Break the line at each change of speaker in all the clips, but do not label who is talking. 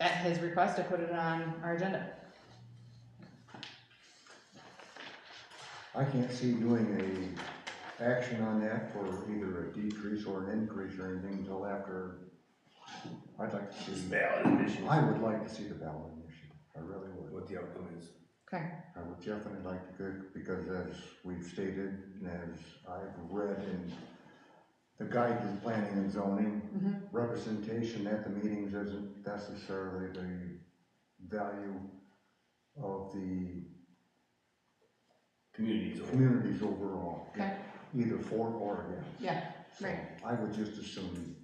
at his request, I put it on our agenda.
I can't see doing a action on that for either a decrease or an increase or anything until after. I'd like to see,
ballot initiative.
I would like to see the ballot initiative, I really would.
What the outcome is.
Okay,
I would definitely like to, go because as we've stated, and as I've read in the guide to planning and zoning,
mhm,
representation at the meetings isn't necessarily the value of the
Communities.
communities overall.
okay,
Either for or against.
yeah,
So
Right.
I would just assume,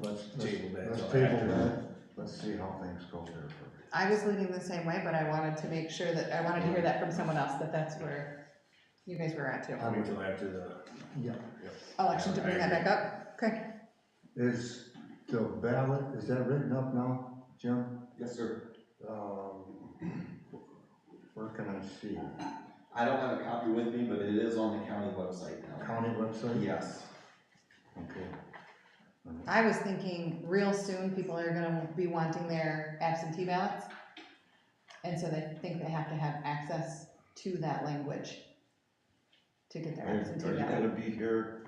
let's, let's,
Table that
let's
till
table
after.
that, let's see how things go there first.
I was leaning the same way, but I wanted to make sure that, I wanted to hear that from someone else, that that's where you guys were at too.
Wait until after the,
Yeah.
Election to bring that back up, okay,
Is the ballot, is that written up now, Jim?
Yes, sir.
Um, Where can I see? it?
I don't have a copy with me, but it is on the county website now.
County website?
Yes.
Okay.
I was thinking real soon, people are gonna be wanting their absentee ballots. And so they think they have to have access to that language to get their
Are are
absentee
you
ballot.
gonna be here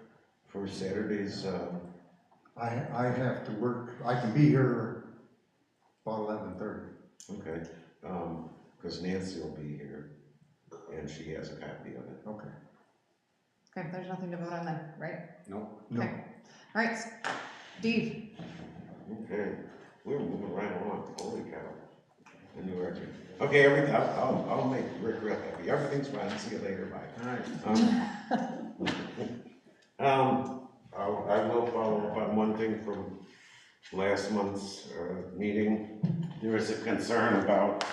for Saturday's, uh,
I, I have to work, I can be here about eleven thirty.
okay, um, cause Nancy will be here, and she has a copy of it.
Okay.
Okay, there's nothing to vote on then, right?
no,
No,
Okay. Alright, Steve,
Okay, we're moving right along, holy cow. A new record. Okay, everything, I'll, I'll, I'll make Rick real happy, everything's fine, see you later, bye.
alright.
Um, Um, I, I will follow up on one thing from last month's, uh, meeting. There was a concern about,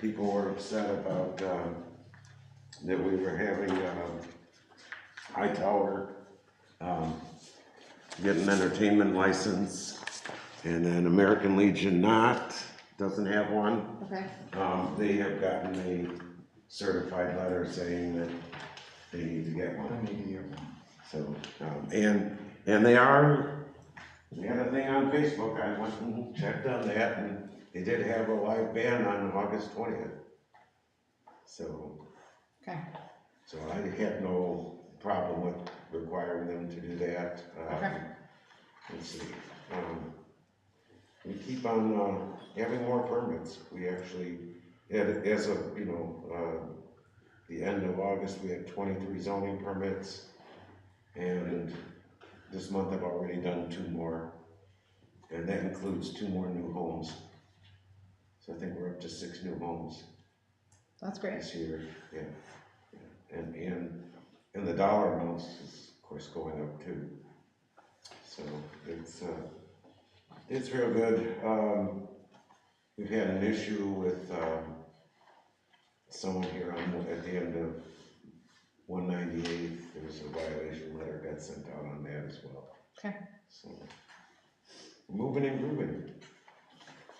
people were upset about, um, that we were having, um, Hightower, um, get an entertainment license, and then American Legion not, doesn't have one.
okay,
Um, they have gotten a certified letter saying that they need to get
I
one,
need you.
so, um, and, and they are, they had a thing on Facebook, I went and checked on that, and they did have a live band on August twentieth. So,
okay,
so I had no problem with requiring them to do that, um,
Okay.
let's see, um, we keep on, uh, having more permits, we actually, and as of, you know, uh, the end of August, we had twenty-three zoning permits, and this month I've already done two more, and that includes two more new homes. So I think we're up to six new homes
that's great,
this year, yeah. yeah. And, and, and the dollar amounts is, of course, going up too. So it's, uh, it's real good. Um, we've had an issue with, um, someone here on, at the end of one ninety-eight, there was a violation letter got sent out on that as well.
Okay.
So, moving and grooving.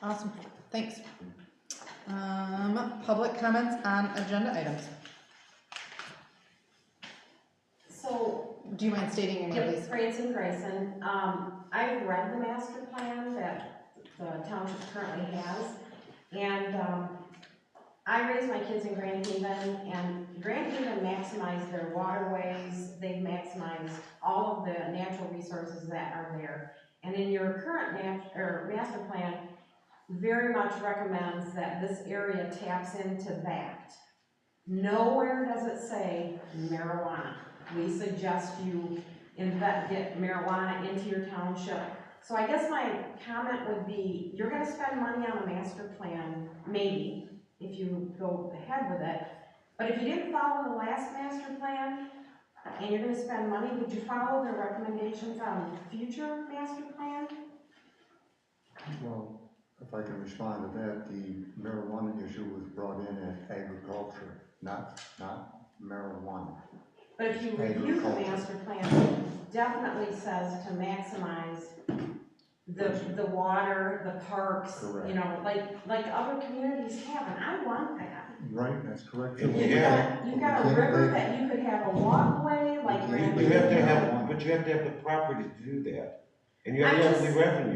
awesome, thanks. Um, public comments on agenda items.
So,
Do you mind stating your name,
it's
please?
Franson Grayson, um, I've read the master plan that the township currently has, and, um, I raised my kids in Grand Haven, and Grand Haven maximized their waterways, they've maximized all of the natural resources that are there. And in your current nat, or master plan, very much recommends that this area taps into that. Nowhere does it say marijuana. We suggest you invest, get marijuana into your township. So I guess my comment would be, you're gonna spend money on a master plan, maybe, if you go ahead with it. But if you didn't follow the last master plan, and you're gonna spend money, would you follow the recommendations on the future master plan?
Well, if I can respond to that, the marijuana issue was brought in as agriculture, not, not marijuana.
But if you review the
Agriculture.
master plan, it definitely says to maximize the, the water, the parks, you
Correct.
know, like, like other communities have, and I want that.
Right, that's correct.
And you
You
have-
got- You got a river that you could have a walkway, like.
You-
You have to
Yeah.
have, but you have to have the property to do that, and you have to have the
I'm just-
revenue.